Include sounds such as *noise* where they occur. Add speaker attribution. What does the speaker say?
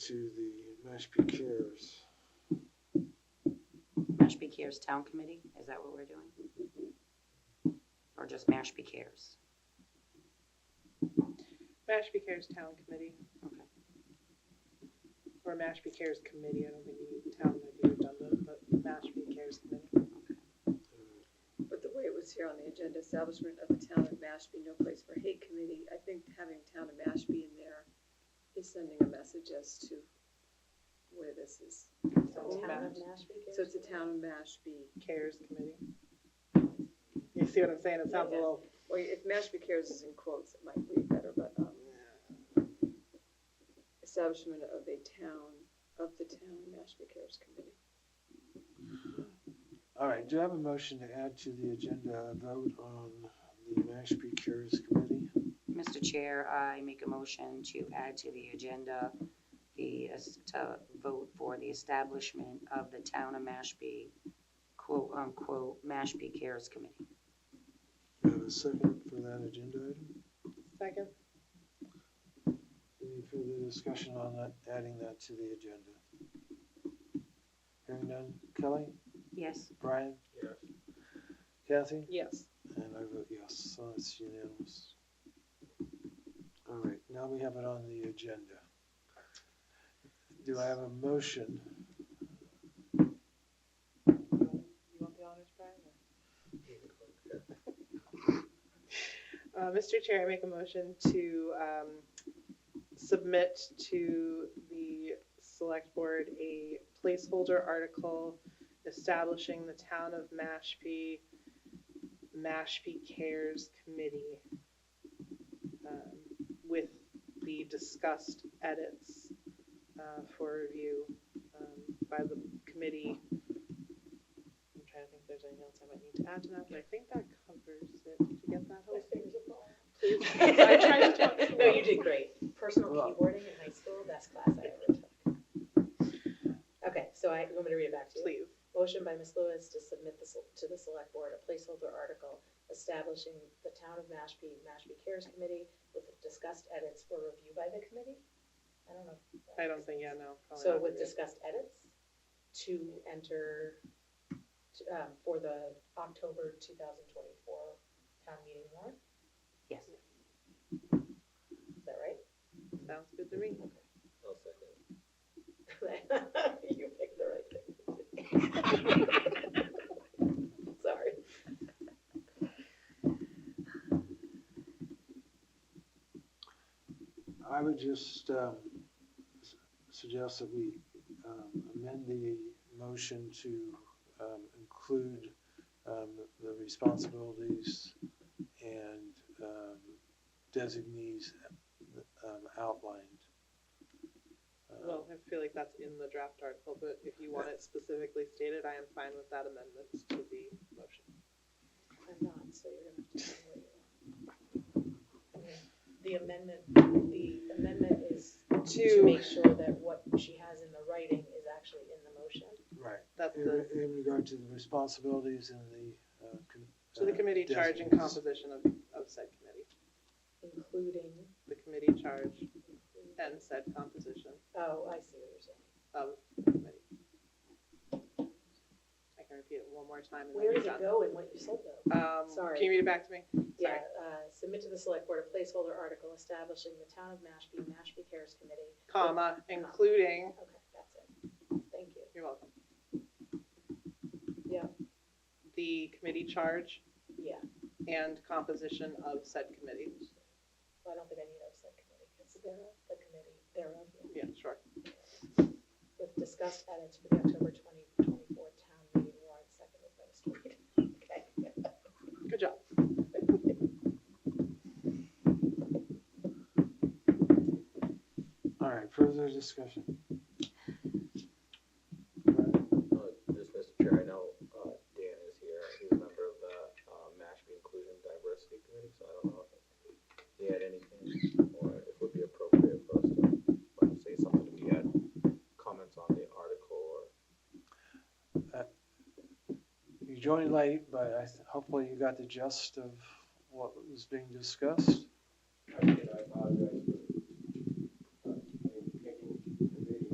Speaker 1: to the Mashpee Cares.
Speaker 2: Mashpee Cares Town Committee, is that what we're doing? Or just Mashpee Cares?
Speaker 3: Mashpee Cares Town Committee,
Speaker 2: Okay.
Speaker 3: or Mashpee Cares Committee, I don't think you need town, I think you've done that, but Mashpee Cares Committee.
Speaker 4: But the way it was here on the agenda, establishment of the town of Mashpee, no place for hate committee, I think having town of Mashpee in there is sending a message as to where this is. So it's a town of Mashpee,
Speaker 3: Cares Committee. You see what I'm saying? It sounds a
Speaker 4: Yeah.
Speaker 3: little,
Speaker 4: or if Mashpee cares is in quotes, it might read better, but, um, establishment of a town, of the town Mashpee cares committee.
Speaker 1: All right, do I have a motion to add to the agenda a vote on the Mashpee Cares Committee?
Speaker 2: Mr. Chair, I make a motion to add to the agenda the, es- to vote for the establishment of the Town of Mashpee, quote-unquote, Mashpee Cares Committee.
Speaker 1: Do I have a second for that agenda item?
Speaker 3: second,
Speaker 1: Any further discussion on that, adding that to the agenda? Hearing none. Kelly?
Speaker 2: Yes,
Speaker 1: Brian? Yes. Kathy?
Speaker 3: yes.
Speaker 1: And I vote yes, so it's unanimous. All right, now we have it on the agenda. Do I have a motion?
Speaker 3: You want the honors, Brian? Uh, Mr. Chair, I make a motion to um, submit to the Select Board a placeholder article establishing the Town of Mashpee, Mashpee Cares Committee um, with the discussed edits uh, for review um, by the committee I'm trying to think if there's anything else I might need to add to that, but I think that covers it. Did you get that, Hope? I tried to talk too
Speaker 5: *laughs* No,
Speaker 3: well.
Speaker 5: you did great. Personal
Speaker 1: Well-
Speaker 5: keyboarding in high school, best class I ever took. Okay, so I, you want me to read it back to you?
Speaker 3: Please.
Speaker 5: Motion by Ms. Lewis to submit the sel- to the select board a placeholder article establishing the town of Mashpee, Mashpee Cares Committee with discussed edits for review by the committee? I don't know.
Speaker 3: I don't think, yeah, no. probably
Speaker 5: So
Speaker 3: not gonna
Speaker 5: with
Speaker 3: be it.
Speaker 5: discussed edits to enter, to, um, for the October two thousand twenty-four town meeting warrant,
Speaker 2: yes.
Speaker 5: is that right? *laughs*
Speaker 3: Sounds good to me.
Speaker 5: You picked the right thing. *laughs* Sorry.
Speaker 1: I would just um, s- suggest that we um, amend the motion to um, include um, the responsibilities and um, designees um, outlined. Uh,
Speaker 3: Well, I feel like that's in the draft article, but if you want it specifically stated, I am fine with that amendment to the motion.
Speaker 5: I'm not, so you're gonna have to tell me what you want. The amendment, the amendment is to
Speaker 3: To,
Speaker 5: make sure that what she has in the writing is actually in the motion.
Speaker 1: Right.
Speaker 3: that's
Speaker 1: In
Speaker 3: the,
Speaker 1: in regard to the responsibilities and the. uh, com-
Speaker 3: to the
Speaker 1: uh,
Speaker 3: committee charge and
Speaker 1: designates.
Speaker 3: composition of, of said committee.
Speaker 5: Including,
Speaker 3: The committee charge and said composition
Speaker 5: oh, I see what you're saying.
Speaker 3: of the committee. I can repeat it one more time and then
Speaker 5: Where
Speaker 3: you're done.
Speaker 5: does it go in what you said though?
Speaker 3: Um,
Speaker 5: Sorry.
Speaker 3: Can you read it back to me?
Speaker 5: Yeah, uh, submit to the select board a placeholder article establishing the town of Mashpee, Mashpee Cares Committee.
Speaker 3: Comma, including,
Speaker 5: Okay, that's it. Thank you.
Speaker 3: you're welcome,
Speaker 5: Yeah,
Speaker 3: the committee charge
Speaker 5: yeah.
Speaker 3: and composition of said committee.
Speaker 5: Well, I don't think I need a subcommittee, because they're the committee, they're of you.
Speaker 3: Yeah, sure.
Speaker 5: With discussed edits for the October twenty twenty-four town meeting warrant, seconded by Mr. Reed. *laughs* Okay.
Speaker 3: Good job.
Speaker 1: All right, further discussion.
Speaker 6: Uh, Just, Mr. Chair, I know uh, Dan is here, he's a member of the uh, Mashpee Inclusion Diversity Committee, so I don't know if he had anything, or if it would be appropriate for us to, like, say something if he had comments on the article, or
Speaker 1: You joined late, but I th- hopefully you got the gist of what was being discussed.